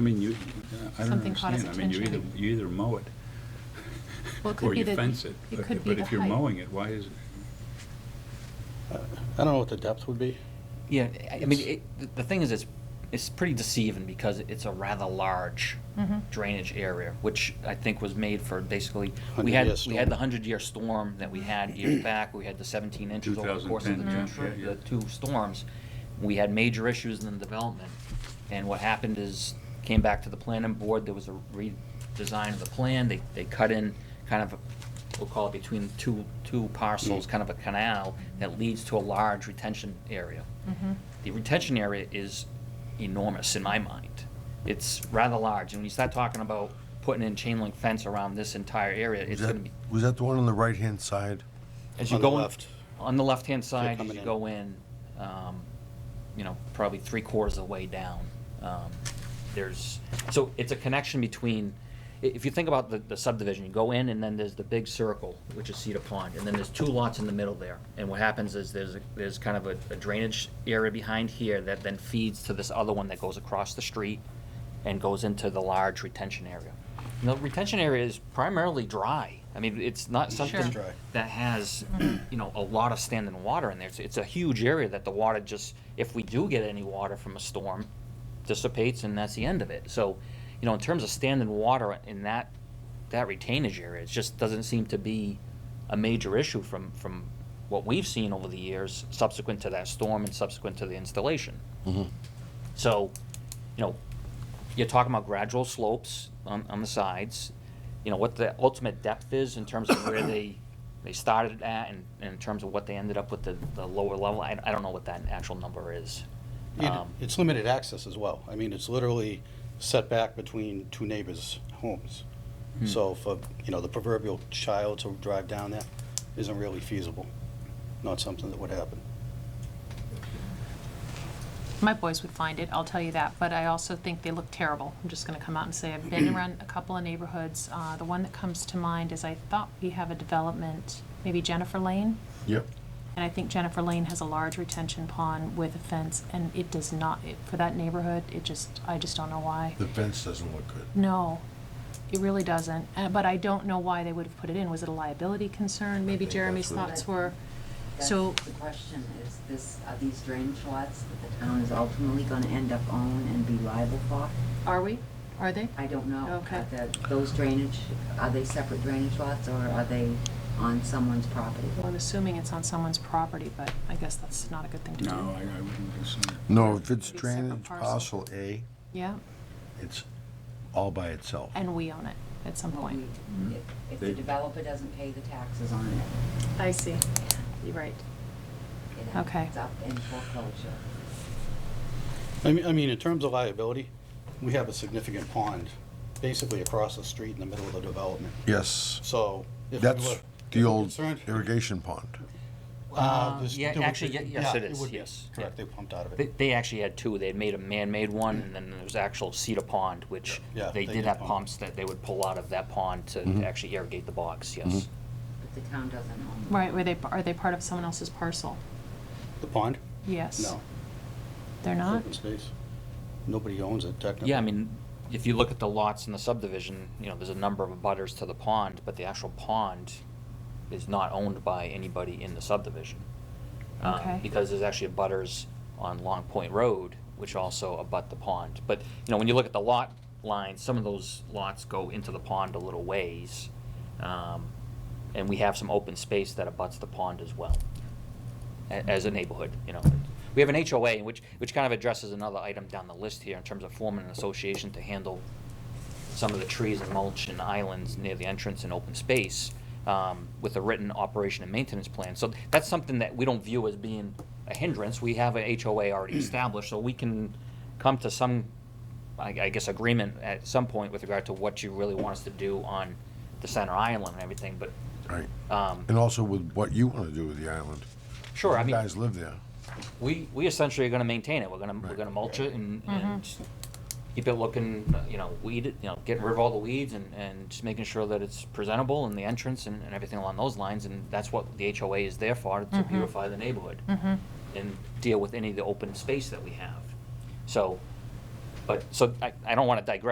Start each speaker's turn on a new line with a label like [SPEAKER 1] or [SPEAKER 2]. [SPEAKER 1] I mean, you, I don't
[SPEAKER 2] Something caught his
[SPEAKER 1] understand. I mean, you either,
[SPEAKER 2] attention.
[SPEAKER 1] you either mow it
[SPEAKER 2] Well, it could
[SPEAKER 1] or
[SPEAKER 2] be
[SPEAKER 1] you
[SPEAKER 2] the-
[SPEAKER 1] fence it.
[SPEAKER 2] It
[SPEAKER 1] But-
[SPEAKER 2] could be
[SPEAKER 1] But
[SPEAKER 2] the
[SPEAKER 1] if you're
[SPEAKER 2] height.
[SPEAKER 1] mowing it, why is,
[SPEAKER 3] I don't know what the depth would be.
[SPEAKER 4] Yeah, I- I mean, it, the- the thing is, it's, it's pretty deceiving because it's a rather large
[SPEAKER 2] Mhm.
[SPEAKER 4] drainage area, which I think was made for basically, we
[SPEAKER 3] 100-year
[SPEAKER 4] had, we had
[SPEAKER 3] storm.
[SPEAKER 4] the hundred-year storm that we had years back, we had the seventeen inches over the course of the
[SPEAKER 1] 2010,
[SPEAKER 4] two,
[SPEAKER 1] yeah, yeah,
[SPEAKER 4] tr-
[SPEAKER 1] yeah.
[SPEAKER 4] the two storms. We had major issues in the development, and what happened is, came back to the planning board, there was a redesign of the plan, they, they cut in kind of, a- we'll call it between two, two parcels, kind of a canal that leads to a large retention area
[SPEAKER 2] Mhm.
[SPEAKER 4] the retention area is enormous in my mind. It's rather large, and when you start talking about putting in chain link fence around this entire area,
[SPEAKER 5] Was
[SPEAKER 4] it's
[SPEAKER 5] that-
[SPEAKER 4] gonna be,
[SPEAKER 5] Was that the one on the right-hand side?
[SPEAKER 4] as you
[SPEAKER 3] On the
[SPEAKER 4] go in-
[SPEAKER 3] left.
[SPEAKER 4] On the left-hand side, as
[SPEAKER 3] coming
[SPEAKER 4] you
[SPEAKER 3] in.
[SPEAKER 4] go in, um, you know, probably three quarters of the way down, um, there's, so it's a connection between, i- if you think about the, the subdivision, you go in and then there's the big circle, which is Cedar Pond, and then there's two lots in the middle there. And what happens is there's, a- there's kind of a a drainage area behind here that then feeds to this other one that goes across the street and goes into the large retention area. And the retention area is primarily dry. I mean, it's not something
[SPEAKER 3] dry.
[SPEAKER 4] that has, you know, a lot of standing water in there. It's, it's a huge area that the water just, if we do get any water from a storm, dissipates and that's the end of it. So, you know, in terms of standing water in that, that retainage area, it just doesn't seem to be a major issue from, from what we've seen over the years subsequent to that storm and subsequent to the installation. So, you know, you're talking about gradual slopes on, on the sides. You know, what the ultimate depth is in terms of where they, they started at and, and in terms of what they ended up with the, the lower level, I, I don't know what that actual number is.
[SPEAKER 3] It-
[SPEAKER 4] Um,
[SPEAKER 3] It's limited access as well. I mean, it's literally set back between two neighbors' homes.
[SPEAKER 4] Hmm.
[SPEAKER 3] So for, you know, the proverbial child to drive down there isn't really feasible. Not something that would happen.
[SPEAKER 2] My boys would find it, I'll tell you that, but I also think they look terrible. I'm just gonna come out and say, I've been around a couple of neighborhoods. Uh, the one that comes to mind is I thought we have a development, maybe Jennifer Lane?
[SPEAKER 5] Yep.
[SPEAKER 2] And I think Jennifer Lane has a large retention pond with a fence, and it does not, it- for that neighborhood, it just, I just don't know why.
[SPEAKER 5] The fence doesn't look good.
[SPEAKER 2] No, it really doesn't. Uh, But I don't know why they would have put it in. Was it a liability concern? Maybe
[SPEAKER 5] think
[SPEAKER 2] Jeremy's
[SPEAKER 5] that's what-
[SPEAKER 2] thoughts were,
[SPEAKER 6] That's
[SPEAKER 2] so,
[SPEAKER 6] The question is, this, are these drainage lots that the town is ultimately gonna end up owning and be liable for?
[SPEAKER 2] are we? Are they?
[SPEAKER 6] I don't know.
[SPEAKER 2] Okay.
[SPEAKER 6] Are the- Those drainage, are they separate drainage lots or are they on someone's property?
[SPEAKER 2] Well, I'm assuming it's on someone's property, but I guess that's not a good thing to do.
[SPEAKER 1] no, I I wouldn't assume.
[SPEAKER 5] No, if it's
[SPEAKER 2] Separate
[SPEAKER 5] drainage
[SPEAKER 2] parcel.
[SPEAKER 5] parcel A,
[SPEAKER 2] Yeah,
[SPEAKER 5] it's all by itself.
[SPEAKER 2] and we own it at some
[SPEAKER 6] Well,
[SPEAKER 2] point.
[SPEAKER 6] we- if- If the
[SPEAKER 1] They-
[SPEAKER 6] developer doesn't pay the taxes on it,
[SPEAKER 2] I see. You're right.
[SPEAKER 6] it
[SPEAKER 2] Okay.
[SPEAKER 6] ends up in foreclosure.
[SPEAKER 3] I mean, I mean, in terms of liability, we have a significant pond basically across the street in the middle of the development.
[SPEAKER 5] Yes,
[SPEAKER 3] So if we were-
[SPEAKER 5] that's
[SPEAKER 3] if we
[SPEAKER 5] the
[SPEAKER 3] were
[SPEAKER 5] old
[SPEAKER 3] concerned-
[SPEAKER 5] irrigation pond.
[SPEAKER 3] Uh, this-
[SPEAKER 4] yeah,
[SPEAKER 3] there would
[SPEAKER 4] actually,
[SPEAKER 3] be-
[SPEAKER 4] ye- yes,
[SPEAKER 3] yeah,
[SPEAKER 4] it is,
[SPEAKER 3] would be.
[SPEAKER 4] yes.
[SPEAKER 3] Correct, they pumped out of
[SPEAKER 4] They,
[SPEAKER 3] it.
[SPEAKER 4] they actually had two. They had made a man-made one, and then there was actual cedar pond, which
[SPEAKER 3] Yeah, yeah,
[SPEAKER 4] they
[SPEAKER 3] they
[SPEAKER 4] did
[SPEAKER 3] did
[SPEAKER 4] have
[SPEAKER 3] pump.
[SPEAKER 4] pumps that they would pull out of that pond to to actually irrigate the box, yes.
[SPEAKER 6] But the town doesn't own it.
[SPEAKER 2] Right, were they, are they part of someone else's parcel?
[SPEAKER 3] The pond?
[SPEAKER 2] Yes.
[SPEAKER 3] No.
[SPEAKER 2] They're not?
[SPEAKER 3] Open space. Nobody owns it technically.
[SPEAKER 4] Yeah, I mean, if you look at the lots in the subdivision, you know, there's a number of abutters to the pond, but the actual pond is not owned by anybody in the subdivision. Um,
[SPEAKER 2] Okay.
[SPEAKER 4] Because there's actually abutters on Long Point Road, which also abut the pond. But, you know, when you look at the lot lines, some of those lots go into the pond a little ways. um, And we have some open space that abuts the pond as well a- as a neighborhood, you know. We have an HOA, which, which kind of addresses another item down the list here in terms of forming an association to handle some of the trees and mulch and islands near the entrance and open space um, with a written operation and maintenance plan. So that's something that we don't view as being a hindrance. We have an HOA already established, so we can come to some, I I guess, agreement at some point with regard to what you really want us to do on the center island and everything, but,
[SPEAKER 5] Right.
[SPEAKER 4] um,
[SPEAKER 5] And also with what you want to do with the island.
[SPEAKER 4] sure, I mean.
[SPEAKER 5] You guys live there.
[SPEAKER 4] we, we essentially are gonna maintain it, we're gonna, we're
[SPEAKER 5] Right.
[SPEAKER 4] gonna mulch it and, and keep it looking, uh, you know, weed, it, you know, getting rid of all the weeds and, and just making sure that it's presentable and the entrance and, and everything along those lines, and that's what the HOA is there for, to beautify the
[SPEAKER 2] Mm. Mm-hmm.
[SPEAKER 4] neighborhood. And deal with any of the open space that we have. So, But, so I, I don't want to digress